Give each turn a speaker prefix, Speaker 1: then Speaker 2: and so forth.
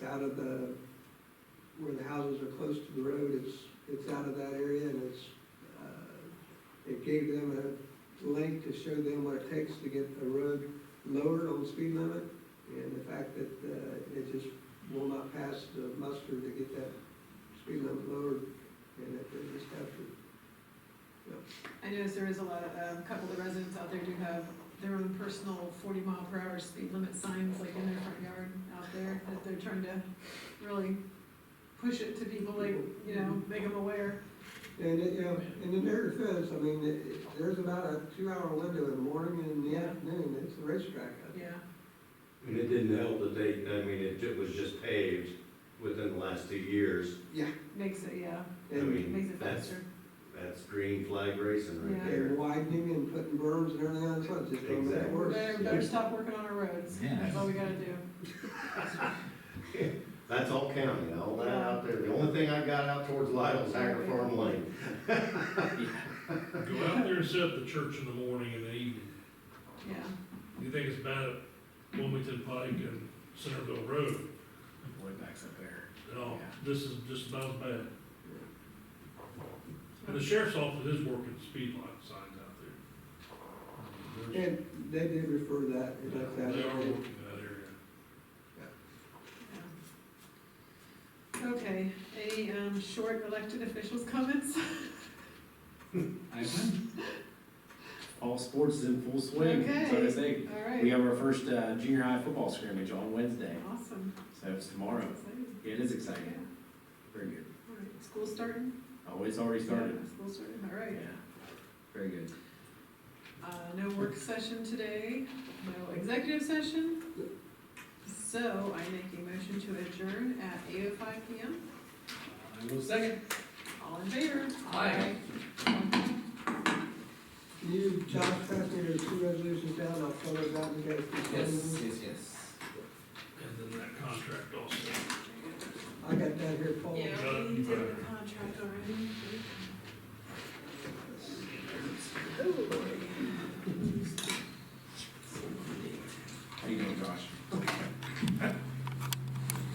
Speaker 1: out of the, where the houses are close to the road, it's, it's out of that area and it's, uh, it gave them a link to show them what it takes to get a road lowered on the speed limit. And the fact that, uh, it just will not pass the muster to get that speed limit lowered and that they just have to.
Speaker 2: I noticed there is a lot of, um, a couple of residents out there do have their own personal forty mile per hour speed limit signs like in their front yard out there that they're trying to really push it to people like, you know, make them aware.
Speaker 1: And, it, you know, and in their defense, I mean, it, it- there's about a two-hour window in the morning and in the afternoon, it's a racetrack out there.
Speaker 2: Yeah,
Speaker 3: And it didn't help that they, I mean, it ju- was just paved within the last two years.
Speaker 2: makes it, yeah,
Speaker 3: I
Speaker 1: And-
Speaker 2: makes
Speaker 3: mean,
Speaker 2: it
Speaker 3: that's,
Speaker 2: faster.
Speaker 3: that's green flag racing right
Speaker 2: Yeah.
Speaker 1: And
Speaker 3: there.
Speaker 1: widening and putting berms and everything else, it's just gonna make it
Speaker 3: Exactly.
Speaker 1: worse.
Speaker 2: Better, better stop working on our roads,
Speaker 4: Yeah.
Speaker 2: that's all we gotta do.
Speaker 3: That's all county, all that out there. The only thing I got out towards Lytle's Hacker Farm Lane.
Speaker 5: Go out there and set up the church in the morning and the evening.
Speaker 2: Yeah,
Speaker 5: You think it's bad at Wilmington Pike and Centerville Road,
Speaker 4: Way back's up there.
Speaker 5: no,
Speaker 4: Yeah.
Speaker 5: this is just about as bad. And the sheriff's office is working speed limit signs out there. There's-
Speaker 1: And they did refer that, and that's that.
Speaker 5: They are working that area.
Speaker 2: yeah. Okay, any, um, short elected officials comments?
Speaker 4: I win. All sports is in full swing, so
Speaker 2: Okay.
Speaker 4: to say.
Speaker 2: All right,
Speaker 4: We have our first uh, junior high football scrimmage on Wednesday,
Speaker 2: awesome.
Speaker 4: so it's tomorrow.
Speaker 2: Exciting.
Speaker 4: It is
Speaker 2: Yeah,
Speaker 4: exciting, very good.
Speaker 2: all right, school starting?
Speaker 4: Oh, it's already started.
Speaker 2: Yeah, School starting, all
Speaker 4: Yeah,
Speaker 2: right.
Speaker 4: very good.
Speaker 2: Uh, no work session today, no executive session. So I make a motion to adjourn at eight oh five P M.
Speaker 4: I will second.
Speaker 2: All in favor?
Speaker 4: Aye.
Speaker 1: Can you, Josh, pass me those two resolutions down, I'll fill those out and get it.
Speaker 4: yes, yes.
Speaker 5: And then that contract also.
Speaker 1: I got that here, Paul.
Speaker 2: Yeah,
Speaker 5: Got it.
Speaker 2: we did the contract already.